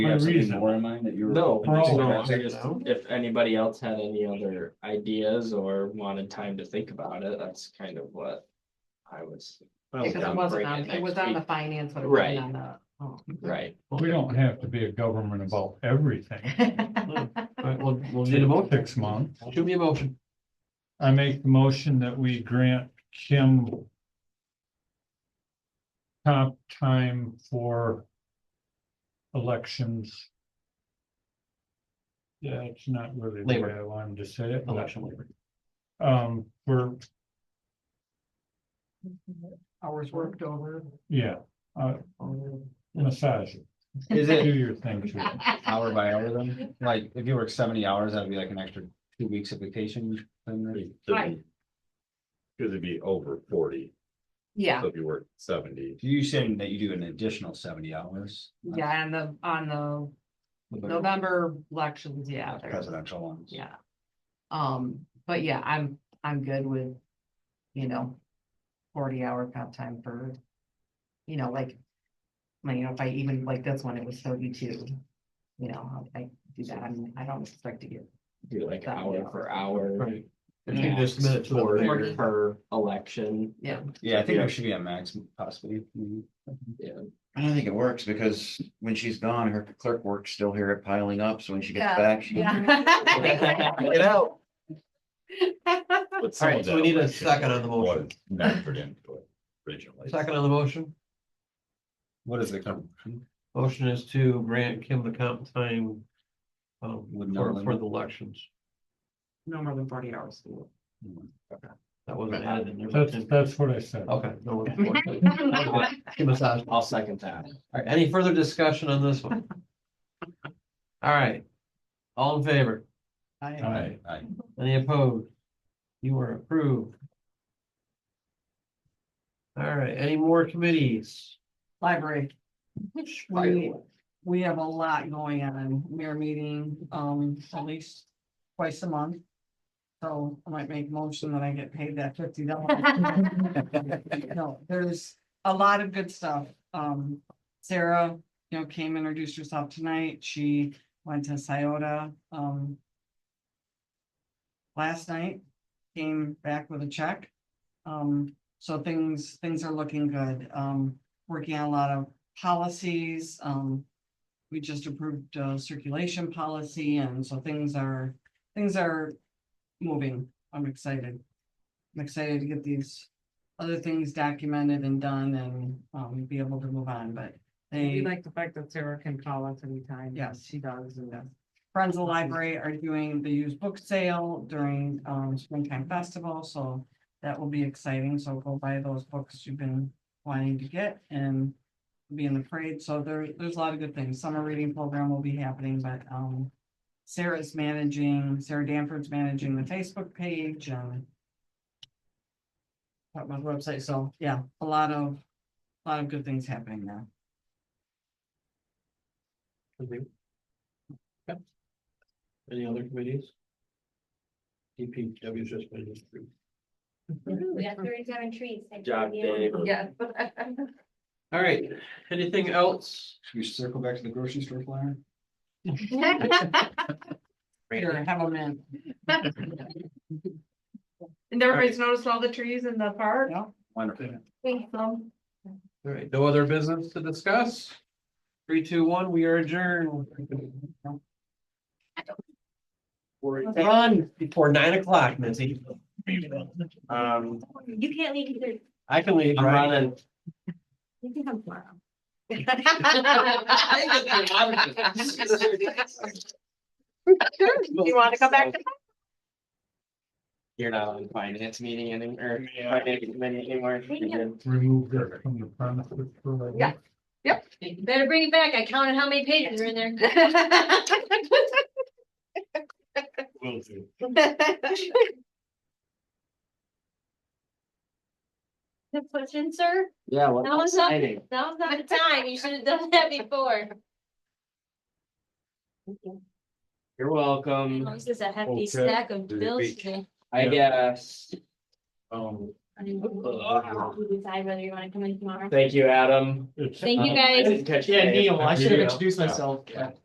You have something Unreasonable. more in mind that you were? No, hoping to Oh, all- do? no, I check just- it out. if anybody else had any other ideas or wanted time to think about it, that's kind of what I was, Because it I'm wasn't bringing on, it it was next on the week. finance, but it Right. wasn't on the. oh. right? We don't have to be a government about everything. All All right, we'll, we'll need a motion. Six Six months. Shoot me a motion. I make the motion that we grant Kim comp time for elections. Yeah, it's not really the Labor. way I wanted to say it. but, Election labor. Um, we're, Hours worked over. yeah, uh, massage, it. Is do it your thing to it. Uh, Hour by hour then, like, if you work seventy hours, that'd be like an extra two weeks of vacation. then, right? Right. Cause it'd be over forty, Yeah, so if you work seventy, You saying that you do an additional seventy hours? yeah, on the, on the That's November elections, yeah, the there's, Presidential ones. yeah. Um, but yeah, I'm, I'm good with, you know, forty hour comp time for, you know, like. I mean, you know, if I even like this one, it was thirty-two, you know, I do that, I mean, I don't expect to get do like hour for hour? Right. I think just a minute to the Or there. per election? Yeah. Yeah, I think there should be a max possibly. maybe. I don't think it works because when she's gone, her clerk work's still here at piling up, so when she gets Yeah, back, she. Yeah. Get out. but All some right, of so we that need a was just second on the motion. what Medford input originally. Second on the motion, What is the? com- motion is to grant Kim the comp time. Um, With no for, limit. for the elections. No more than forty hours. That wasn't added in there. That's, that's what I said. Okay. no one- Kim massage. All I'll second that. right, any further discussion on this one? All right. All in favor? Aye. Aye. Any opposed? You are approved. All right, any more committees? Library. We, we have a lot going on. We are meeting, um, at least twice a month. So I might make a motion that I get paid that fifty dollars. No, there's a lot of good stuff. Um, Sarah, you know, came introduced herself tonight. She went to Sciota, um, last night, came back with a check. Um, so things, things are looking good. Um, working on a lot of policies, um. We just approved uh circulation policy and so things are, things are moving. I'm excited. I'm excited to get these other things documented and done and um be able to move on, but We they, like the fact that Sarah can call us anytime. Yes. She does, and that's Friends of the Library are doing the used book sale during um springtime festival, so. That will be exciting, so go buy those books you've been wanting to get and be in the parade, so there, there's a lot of good things. Summer reading program will be happening, but, um. Sarah's managing, Sarah Danford's managing the Facebook page and. Got my website, so yeah, a lot of, a lot of good things happening now. Any other committees? DPW just been approved. We got thirty-seven trees. Thank you. Job, Dave. Yeah. All right, anything else? Should we circle back to the grocery store flyer? Here, have them in. And everybody's noticed all the trees in the park? Wonderful. Um, All right, no other business to discuss? Three, two, one, we are adjourned. We're done before nine o'clock, Missy. Um, You can't leave either. I can leave, I'm right? running. You can come tomorrow. You wanna come back? You're not on finance meeting anymore, finance committee anymore. We can- Remove that from the premises for right now. Better bring it back. I counted how many pages are in there. The question, sir? Yeah, what? That was not, exciting. that was not the time. You should have done that before. You're welcome. This is a hefty Okay. stack of Do the bills beach. today. I Yeah. guess. Um, And then you decide whether you wanna come in tomorrow. Thank you, Adam. It's- Thank you, I guys. didn't catch. Yeah, Neil, I should have introduced myself.